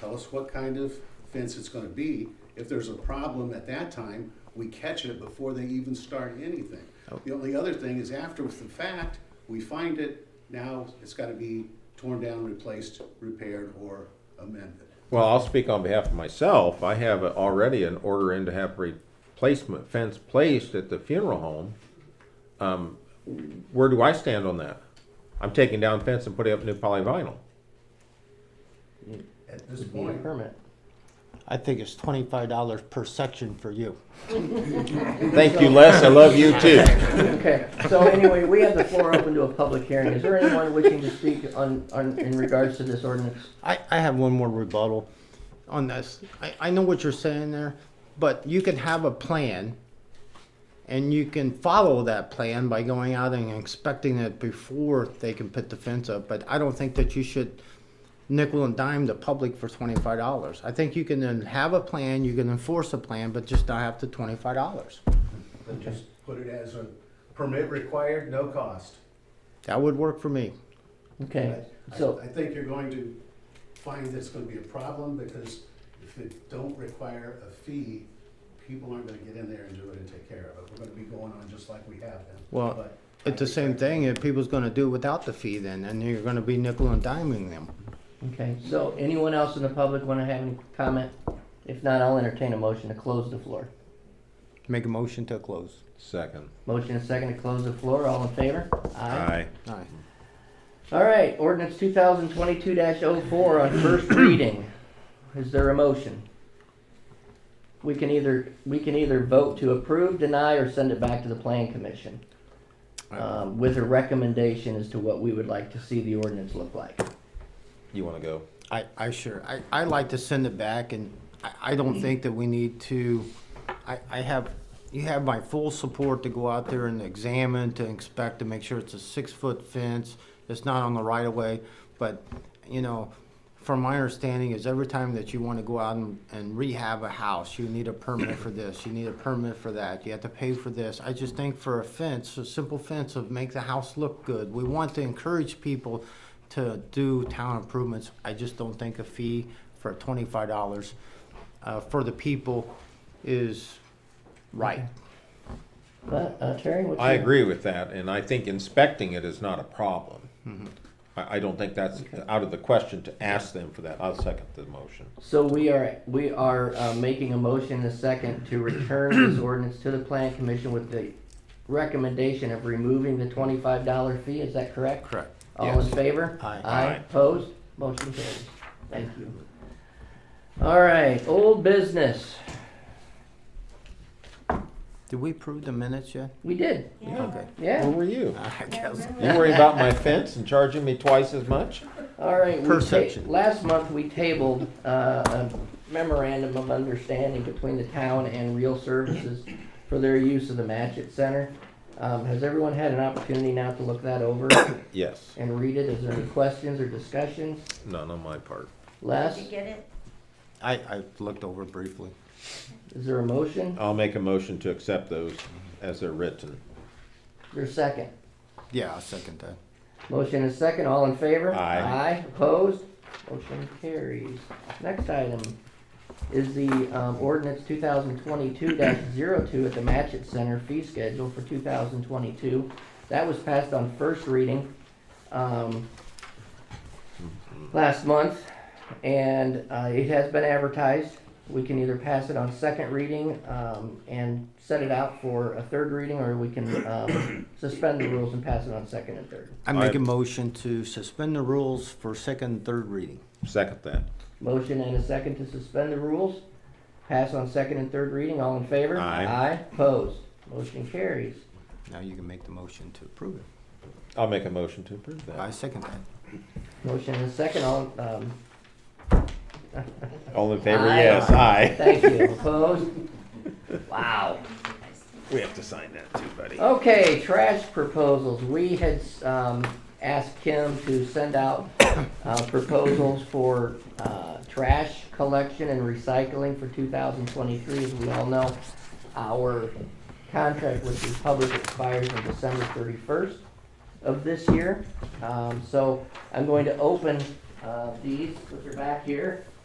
Tell us what kind of fence it's gonna be. If there's a problem at that time, we catch it before they even start anything. The only other thing is after the fact, we find it, now it's gotta be torn down, replaced, repaired, or amended. Well, I'll speak on behalf of myself. I have already an order in to have replacement fence placed at the funeral home. Um, where do I stand on that? I'm taking down fence and putting up new polyvinyl. At this Need a point, permit. I think it's twenty-five dollars per section for you. Thank you, Les. I love you too. Okay, so anyway, we have the floor open to a public hearing. Is there anyone wishing to speak on, on, in regards to this ordinance? I, I have one more rebuttal on this. I, I know what you're saying there, but you can have a plan and you can follow that plan by going out and inspecting it before they can put the fence up, but I don't think that you should nickel and dime the public for twenty-five dollars. I think you can then have a plan, you can enforce a plan, but just not have the twenty-five dollars. then just put it as a permit required, no cost. That would work for me. Okay, I- so, I think you're going to find that's gonna be a problem, because if it don't require a fee, people aren't gonna get in there and do it and take care of it. We're gonna be going on just like we have been. Well, But I It's the think same that- thing, if people's gonna do without the fee then, and you're gonna be nickel and diming them. okay, so anyone else in the public wanna have any comment? If not, I'll entertain a motion to close the floor. Make a motion to close. Second. Motion and second to close the floor, all in favor? Aye. Aye. All right, ordinance two thousand twenty-two 4 on first reading. Is there a motion? We can either, we can either vote to approve, deny, or send it back to the plan commission. Um, with a recommendation as to what we would like to see the ordinance look like. You want to go? I, I sure, I, I like to send it back and I, I don't think that we need to, I, I have, you have my full support to go out there and examine, to inspect, to make sure it's a six-foot fence, it's not on the right of way, but, you know, from my understanding is every time that you wanna go out and, and rehab a house, you need a permit for this, you need a permit for that, you have to pay for this. I just think for a fence, a simple fence of make the house look good, we want to encourage people to do town improvements. I just don't think a fee for twenty-five dollars, uh, for the people is right. But, uh, Terry, what's your? I agree with that, and I think inspecting it is not a problem. I, I don't think that's out of the question to ask them for that. I'll second the motion. So we are, we are, uh, making a motion in a second to return this ordinance to the plan commission with the recommendation of removing the twenty-five dollar fee, is that correct? Correct. All in favor? Aye. Aye, Aye. opposed, motion carries, thank you. All right, old business, Did we approve the minutes yet? we did, Okay. Where yeah, were you? I guess. You worry about my fence and charging me twice as much? all right. we Per ta- section. Last month, we tabled, uh, a memorandum of understanding between the town and Real Services for their use of the Matchett Center. Um, has everyone had an opportunity now to look that over Yes, and read it? Is there any questions or discussions? none on my part. Les, Did you get it? I, I looked over briefly. is there a motion? I'll make a motion to accept those as they're written. Your second? Yeah, I second that. Motion is second, all in favor? Aye. Aye, opposed? Motion carries. Next item is the um, ordinance two thousand twenty-two 2 at the Matchett Center fee schedule for two thousand twenty-two. That was passed on first reading, um, last month, and, uh, it has been advertised. We can either pass it on second reading, um, and set it out for a third reading, or we can, um, suspend the rules and pass it on second and third. I make a Aye. motion to suspend the rules for second and third reading. Second that. Motion and a second to suspend the rules. Pass on second and third reading. All in favor? Aye. Aye. Opposed? Motion carries. Now you can make the motion to approve it. I'll make a motion to approve I that. second that. Motion and a second. All, um, All in favor, Aye. yes, aye. thank you. Opposed? Wow. We have to sign that too, buddy. Okay, trash proposals. We had, um, asked Kim to send out, uh, proposals for, uh, trash collection and recycling for two thousand twenty-three. As we all know, our contract with the public expires on December thirty-first of this year. Um, so I'm going to open, uh, these, which are back here,